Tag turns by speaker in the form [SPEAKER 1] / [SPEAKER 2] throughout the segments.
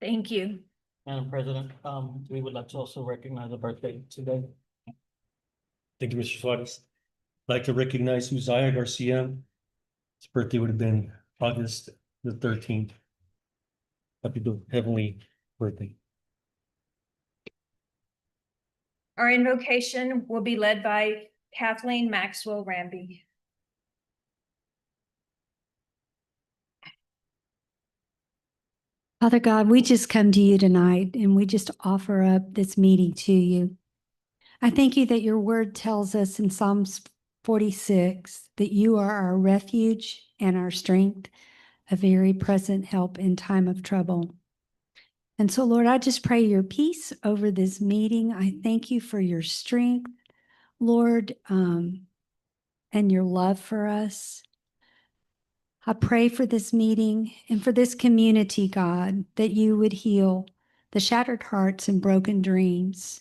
[SPEAKER 1] Thank you.
[SPEAKER 2] Madam President, um, we would like to also recognize a birthday today.
[SPEAKER 3] Thank you, Mr. Suarez. I'd Like to recognize Uzziah Garcia. His birthday would have been August the thirteenth. Happy heavenly birthday.
[SPEAKER 1] Our invocation will be led by Kathleen Maxwell Ramby.
[SPEAKER 4] Father God, we just come to you tonight and we just offer up this meeting to you. I thank you that your word tells us in Psalms 46 that you are our refuge and our strength, a very present help in time of trouble. And so, Lord, I just pray your peace over this meeting. I thank you for your strength, Lord, um, and your love for us. I pray for this meeting and for this community, God, that you would heal the shattered hearts and broken dreams.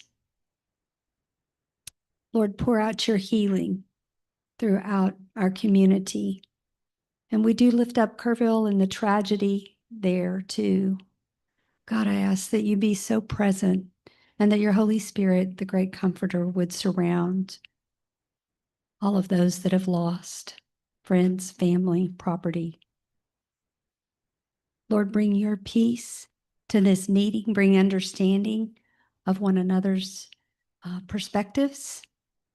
[SPEAKER 4] Lord, pour out your healing throughout our community. And we do lift up Kerrville and the tragedy there too. God, I ask that you be so present and that your Holy Spirit, the great comforter, would surround all of those that have lost friends, family, property. Lord, bring your peace to this meeting, bring understanding of one another's uh, perspectives.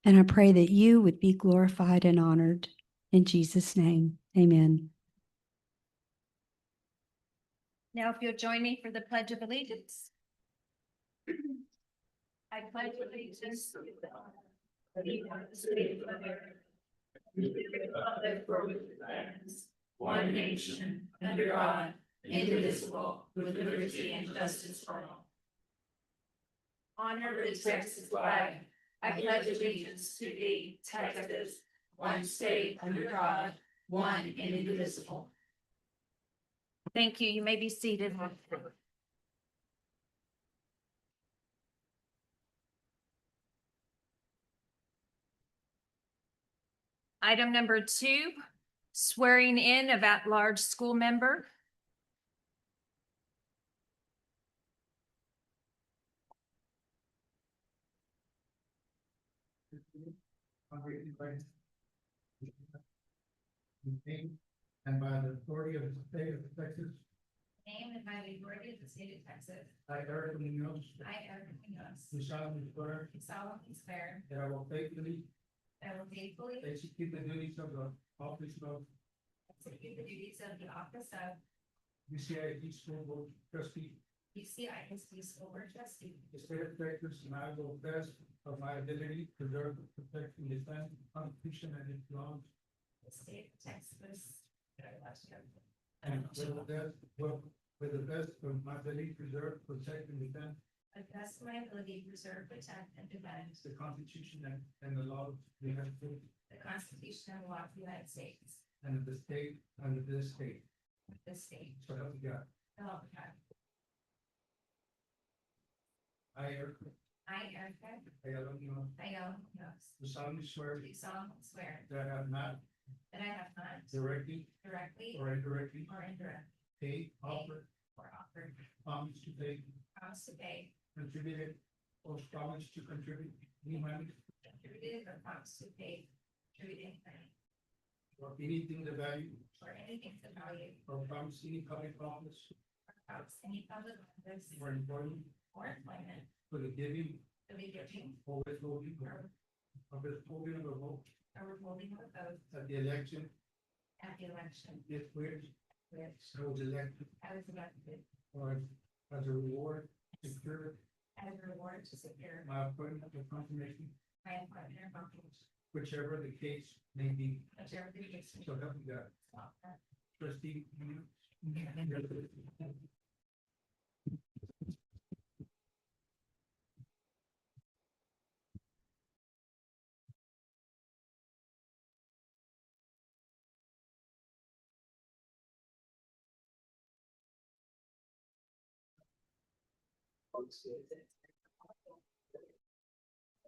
[SPEAKER 4] And I pray that you would be glorified and honored in Jesus' name. Amen.
[SPEAKER 1] Now, if you'll join me for the Pledge of Allegiance. I pledge allegiance to the flag of the United States of America, to the republic for which it stands,
[SPEAKER 5] one nation, under God, indivisible, with liberty and justice for all.
[SPEAKER 1] Honor
[SPEAKER 5] Under
[SPEAKER 1] the
[SPEAKER 5] the
[SPEAKER 1] Texas
[SPEAKER 5] Texas
[SPEAKER 1] flag.
[SPEAKER 5] flag, I pledge allegiance to thee, Texas, one state under God, one and indivisible.
[SPEAKER 1] Thank you. You may be seated. Item number two, swearing in of at-large school member.
[SPEAKER 6] And by the authority of the state of Texas,
[SPEAKER 5] Name and by the authority of the state of Texas,
[SPEAKER 6] I Eric Munoz,
[SPEAKER 5] I, Eric Munoz,
[SPEAKER 6] do solemnly swear
[SPEAKER 5] solemnly swear
[SPEAKER 6] that I will faithfully
[SPEAKER 5] that I will faithfully
[SPEAKER 6] execute the duties of the office of
[SPEAKER 5] execute the duties of the office of
[SPEAKER 6] UCID School Board Trustee,
[SPEAKER 5] UCISD School Board Trustee,
[SPEAKER 6] the state of Texas, and I will best of my ability preserve, protect, and defend the Constitution and its laws,
[SPEAKER 5] the state of Texas.
[SPEAKER 6] and will best, will, with the best of my ability preserve, protect, and defend
[SPEAKER 5] I best of my ability, preserve, protect, and defend
[SPEAKER 6] the Constitution and, and the laws of the United States
[SPEAKER 5] the Constitution and law of the United States,
[SPEAKER 6] and of the state, and of this state,
[SPEAKER 5] the state,
[SPEAKER 6] so help me God.
[SPEAKER 5] and all the God.
[SPEAKER 6] I, Eric
[SPEAKER 5] I, Erica
[SPEAKER 6] Ayala Munoz,
[SPEAKER 5] Ayala Munoz,
[SPEAKER 6] do solemnly swear
[SPEAKER 5] do solemnly swear
[SPEAKER 6] that I have not
[SPEAKER 5] that I have not
[SPEAKER 6] directly
[SPEAKER 5] directly
[SPEAKER 6] or indirectly
[SPEAKER 5] or indirectly
[SPEAKER 6] paid, offered,
[SPEAKER 5] or offered,
[SPEAKER 6] promised to pay,
[SPEAKER 5] promised to pay,
[SPEAKER 6] contributed, or promised to contribute any money
[SPEAKER 5] contributed, or promised to pay, contributed money,
[SPEAKER 6] or anything of value
[SPEAKER 5] or anything to value,
[SPEAKER 6] or promised any public office
[SPEAKER 5] or promised any public office
[SPEAKER 6] or employment
[SPEAKER 5] or employment
[SPEAKER 6] for the giving
[SPEAKER 5] to be giving
[SPEAKER 6] or withholding
[SPEAKER 5] or
[SPEAKER 6] of withholding of a vote
[SPEAKER 5] or withholding of a vote
[SPEAKER 6] at the election
[SPEAKER 5] at the election,
[SPEAKER 6] if where
[SPEAKER 5] which
[SPEAKER 6] I was elected
[SPEAKER 5] I was elected
[SPEAKER 6] or as a reward secure
[SPEAKER 5] as a reward to secure
[SPEAKER 6] my appointment or confirmation,
[SPEAKER 5] my employment or function,
[SPEAKER 6] whichever the case may be.
[SPEAKER 5] whichever the case may
[SPEAKER 6] So help me God.
[SPEAKER 5] be.
[SPEAKER 6] Trustee. Munoz?